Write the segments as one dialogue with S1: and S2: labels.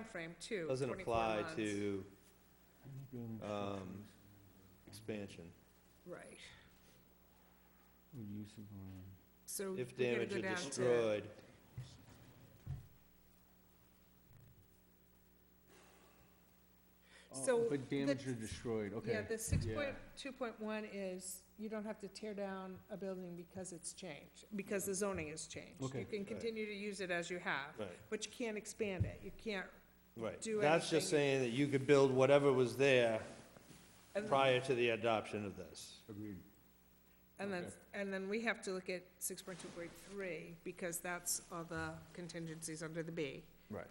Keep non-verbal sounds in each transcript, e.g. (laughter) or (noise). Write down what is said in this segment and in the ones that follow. S1: frame too.
S2: Doesn't
S1: 24
S2: apply
S1: months.
S2: to um, expansion.
S1: Right,
S3: Use of land.
S1: so.
S2: If
S1: we gotta
S2: damaged
S1: go
S2: or
S1: down to-
S2: destroyed,
S3: Oh,
S1: So
S3: But damaged or
S1: that's-
S3: destroyed, okay.
S1: Yeah, the six point, two point one is, you don't have to tear down a building because it's changed, because the zoning has changed.
S3: Okay.
S1: You can continue to use it as you have,
S2: right,
S1: but you can't expand it, you can't. Do
S2: right. That's
S1: anything.
S2: just saying that you could build whatever was there
S1: and-
S2: prior to the adoption of this.
S3: Agreed.
S1: And then,
S3: Okay.
S1: and then we have to look at six point two point three, because that's all the contingencies under the
S3: (laughs)
S1: B.
S2: Right.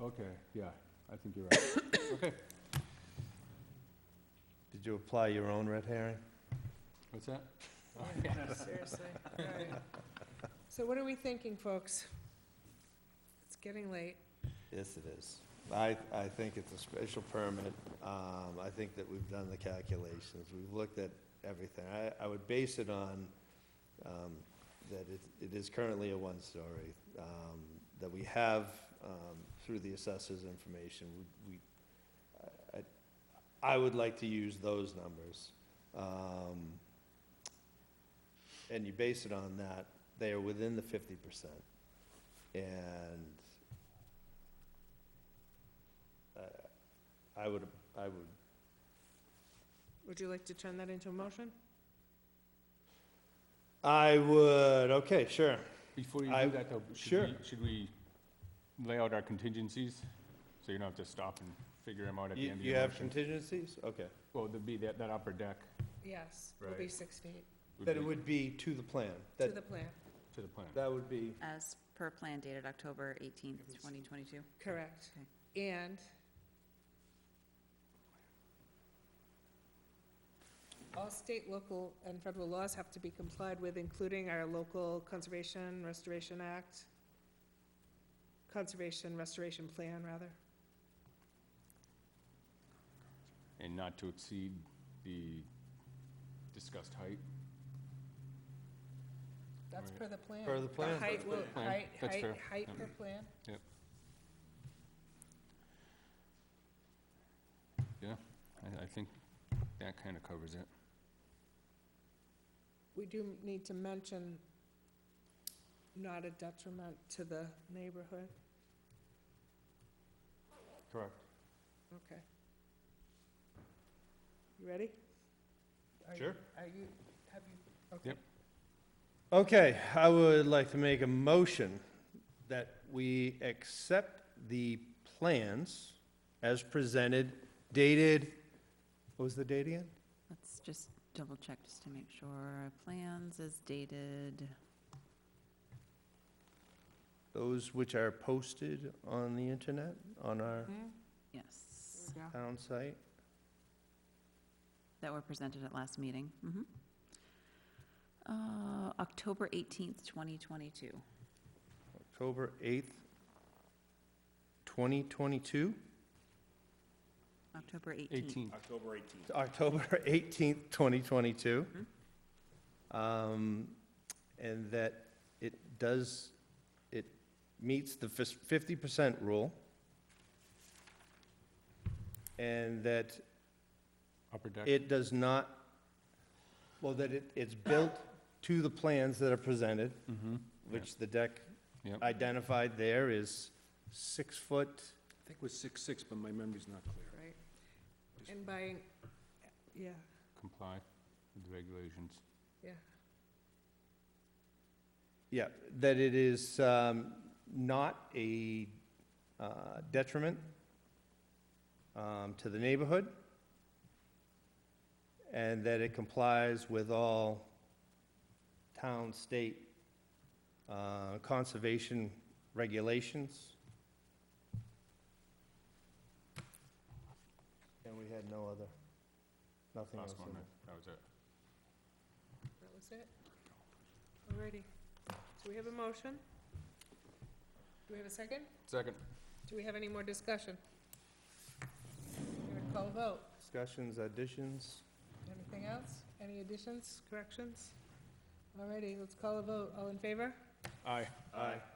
S3: Okay, yeah, I think you're right. (coughs) Okay,
S2: Did you apply your own red herring?
S3: what's that?
S1: Seriously, all right. So what are we thinking, folks? It's getting late.
S2: Yes, it is. I, I think it's a special permit. Um, I think that we've done the calculations. We've looked at everything. I, I would base it on, um, that it, it is currently a one-story, um, that we have, um, through the assessor's information, we, we, I- I, I would like to use those numbers. Um, and you base it on that, they are within the fifty percent. And I- I would, I would,
S1: Would you like to turn that into a motion?
S2: I would, okay, sure.
S3: Before you
S2: I-
S3: do that though,
S2: sure.
S3: should we, should we lay out our contingencies? So you don't have to stop and figure them out at the
S2: You
S3: end of
S2: you
S3: your
S2: have
S3: motion?
S2: contingencies? Okay.
S3: Well, there'd be that, that upper deck
S1: Yes, it'll be
S3: Right.
S1: six feet
S3: would
S2: That it
S3: be
S2: would be to the plan.
S1: to
S2: That,
S1: the plan,
S3: to the plan.
S2: that would be,
S4: As per plan dated October 18th, 2022.
S1: correct. And all state, local, and federal laws have to be complied with, including our local Conservation Restoration Act, Conservation Restoration Plan, rather.
S3: And not to exceed the discussed height.
S1: That's
S3: Right.
S1: per the plan.
S2: Per the plan.
S1: height will,
S3: plan.
S1: height,
S3: That's
S1: height,
S3: fair.
S1: height
S3: Yep.
S1: per plan.
S3: I, I think that kind of covers it.
S1: We do need to mention not a detriment to the neighborhood.
S3: Correct.
S1: Okay. You ready? Are you-
S2: Sure.
S1: Are you, have you,
S2: okay, I would like to make a motion that we accept the plans as presented dated, what was the date again?
S4: Let's just double check just to make sure. Plans is dated,
S2: Those which are posted on the internet, on our
S1: hmm?
S4: yes,
S2: town site.
S4: that were presented at last meeting. Mhm. Uh, October 18th, 2022.
S2: October 8th, 2022,
S4: October 18th.
S3: Eighteen.
S5: October 18th.
S2: October (laughs) 18th, 2022. Um, And that it does, it meets the fis- 50% rule. And that
S3: Upper deck.
S2: it does not, well, that it, it's built to the plans that are presented,
S3: Mm-hmm.
S2: which the deck
S3: Yep.
S2: identified there is six foot,
S5: I think it was six six, but my memory's not clear.
S1: right? And by, yeah,
S3: Comply with the regulations.
S1: yeah,
S2: Yeah, that it is um, not a uh, detriment um, to the neighborhood, and that it complies with all town, state uh, conservation regulations. And we had no other, nothing else
S3: Last one,
S2: in there.
S3: that- that was it.
S1: that was it. Alrighty, so we have a motion. Do we have a second?
S3: Second.
S1: Do we have any more discussion? I'm gonna call a vote.
S2: Discussions, additions?
S1: Anything else? Any additions, corrections? Alrighty, let's call a vote. All in favor?
S3: Aye.
S2: Aye.